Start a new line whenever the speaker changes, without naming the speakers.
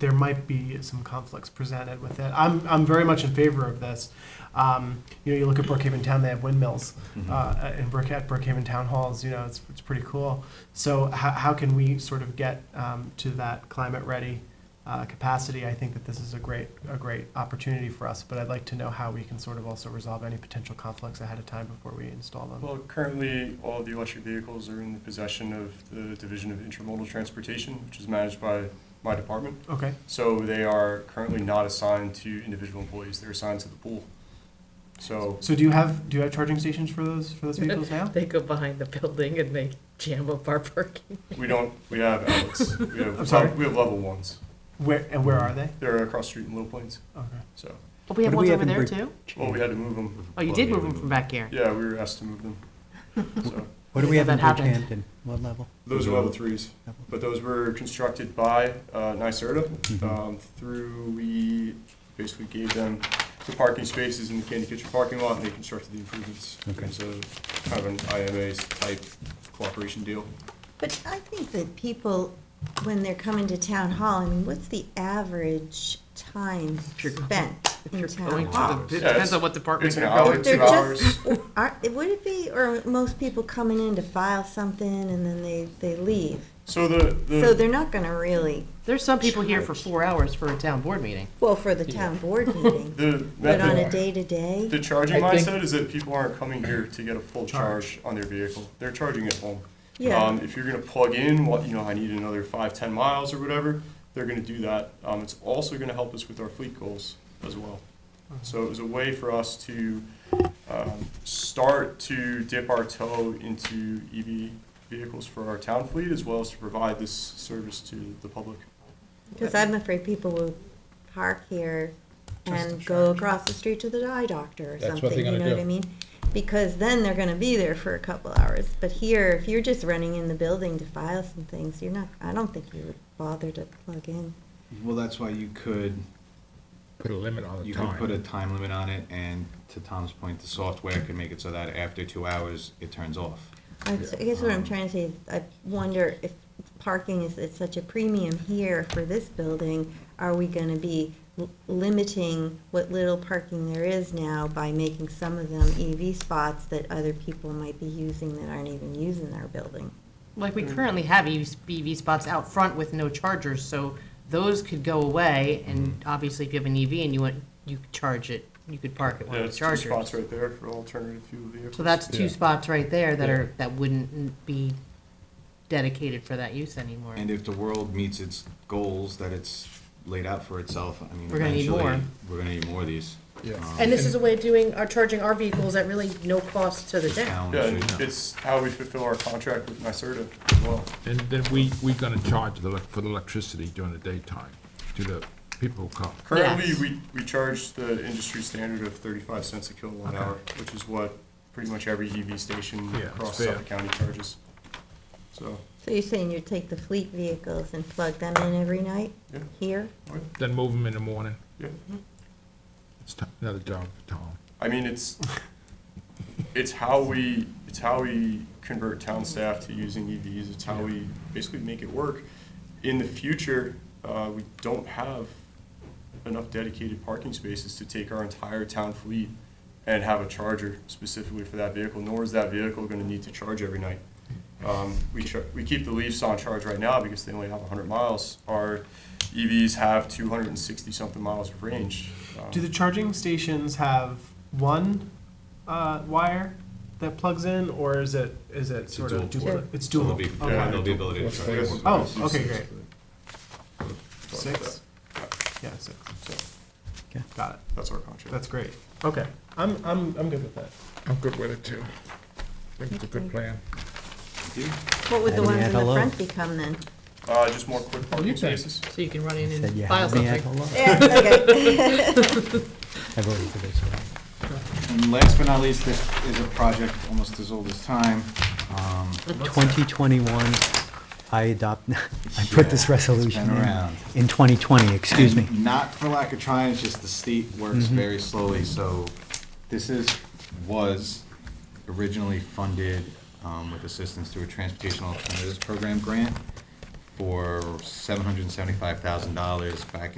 there might be some conflicts presented with it. I'm, I'm very much in favor of this. Um, you know, you look at Brookhaven Town, they have windmills
Mm.
Ah,
uh, in Brook, at Brookhaven Town Halls, you know, it's, it's pretty cool. So how, how can we sort of get um, to that climate-ready uh, capacity? I think that this is a great, a great opportunity for us, but I'd like to know how we can sort of also resolve any potential conflicts ahead of time before we install them.
Well, currently, all the electric vehicles are in the possession of the Division of Intermodal Transportation, which is managed by my department.
Okay,
So they are currently not assigned to individual employees, they're assigned to the pool. So,
so do you have, do you have charging stations for those, for those vehicles now?
They go behind the building and they jam up our parking.
we don't, we have outlets, we
I'm
have,
sorry?
we have level ones.
Where, and where are they?
They're across the street in Little Plains,
Okay.
so,
But we have
What
ones
do we
over
have
there
in
too?
well, we had to move them.
Oh, you did move them from back here.
Yeah, we were asked to move them, so.
What do we
Yeah,
have in
that happened.
Bridgehampton? What level?
Those are level threes,
Level.
but those were constructed by uh, NYSERDA.
Mhm.
Um, Through, we basically gave them the parking spaces in the Candy Kitchen parking lot, and they constructed the improvements. It
Okay.
was a kind of an IMA-type cooperation deal.
But I think that people, when they're coming to town hall, I mean, what's the average time
If you're going-
spent in
You're
town
going
hall?
to the, it
Yeah,
depends
it's-
on what department
It's an
you're
hour,
going
They're
two
to.
just-
hours.
Are, would it be, or are most people coming in to file something and then they, they leave?
So the,
So
the,
they're not gonna really,
There's some people here for four hours for a town board meeting.
well, for the town board meeting,
the
but on a
method,
day-to-day?
the charging
I think-
mindset is that people aren't coming here to get a full charge on their vehicle. They're charging at home.
Yeah.
Um, If you're gonna plug in, what, you know, I need another five, ten miles or whatever, they're gonna do that. Um, It's also gonna help us with our fleet goals as well.
Uh-huh.
So it was a way for us to um, start to dip our toe into EV vehicles for our town fleet as well as to provide this service to the public.
Cause I'm afraid people will park here and
Just
go
charge.
across the street to the eye doctor or
That's what
something,
they're
you
gonna
know what I
do.
mean? Because then they're gonna be there for a couple hours, but here, if you're just running in the building to file some things, you're not, I don't think you would bother to plug in.
Well, that's why you could,
Put a limit on the
you could put a
time.
time limit on it, and to Tom's point, the software could make it so that after two hours, it turns off.
I s- I guess what I'm trying to say, is I wonder if parking is at such a premium here for this building, are we gonna be l- limiting what little parking there is now by making some of them EV spots that other people might be using that aren't even using our building?
Like, we currently have E EV spots out front with no chargers, so those could go away. And
Mm-hmm.
obviously, if you have an EV and you want, you could charge it, you could park it
Yeah,
with a
it's two
charger.
spots right there for alternative fuel vehicles.
So that's two
Yeah.
spots right there that are, that wouldn't be dedicated for that use anymore.
And if the world meets its goals that it's laid out for itself, I mean,
We're gonna need
eventually,
more.
we're gonna need more of these.
Yeah.
Um,
And this is a way of doing, our charging our vehicles at really no cost to the
the
town.
town
Yeah,
should-
and it's how we fulfill our contract with NYSERDA as well.
And then we, we're gonna charge the, elec- for the electricity during the daytime to the people who come.
Currently,
Yes.
we, we charge the industry standard of thirty-five cents a kilowatt hour, which is what pretty much every EV station
Yeah, it's
across
fair.
Suffolk County charges. So,
So you're saying you'd take the fleet vehicles and plug them in every night
yeah,
here?
Then move them in the morning.
yeah.
It's ti- another job for Tom.
I mean, it's, it's how we, it's how we convert town staff to using EVs, it's how we basically make it work. In the future, uh, we don't have enough dedicated parking spaces to take our entire town fleet and have a charger specifically for that vehicle, nor is that vehicle gonna need to charge every night. Um, we char- we keep the Leafs on charge right now because they only have hundred miles. Our EVs have two hundred and sixty-something miles of range. Um,
Do the charging stations have one uh, wire that plugs in, or is it is it sort
dual
of dual?
port.
It's
So
dual.
there'll be,
okay.
yeah, there'll be ability to charge.
Yes.
more
Oh,
cars.
okay, great.
something like
Six. Yeah, six.
that. So,
Okay.
Got it.
That's our contract.
That's great. Okay, I'm I'm I'm good with that.
I'm good with it too. I think it's a good plan.
What would the
Let me
ones
add
in the
hello.
front become then?
Uh, just more
Oh,
quick parking spaces.
So you can run in
Said you
and file
had me at
something.
hello.
Yeah, okay.
I voted for this one.
And last but not least, this is a project almost as old as time. Um,
2021, I adopt, I put this
Yeah, it's been
resolution in,
around.
in 2020, excuse me. Mm-hmm.
And Not for lack of trying, it's just the state works very slowly, so this is, was originally funded um, with assistance through a Transportation Alternatives Program grant for seven hundred and seventy-five thousand dollars back in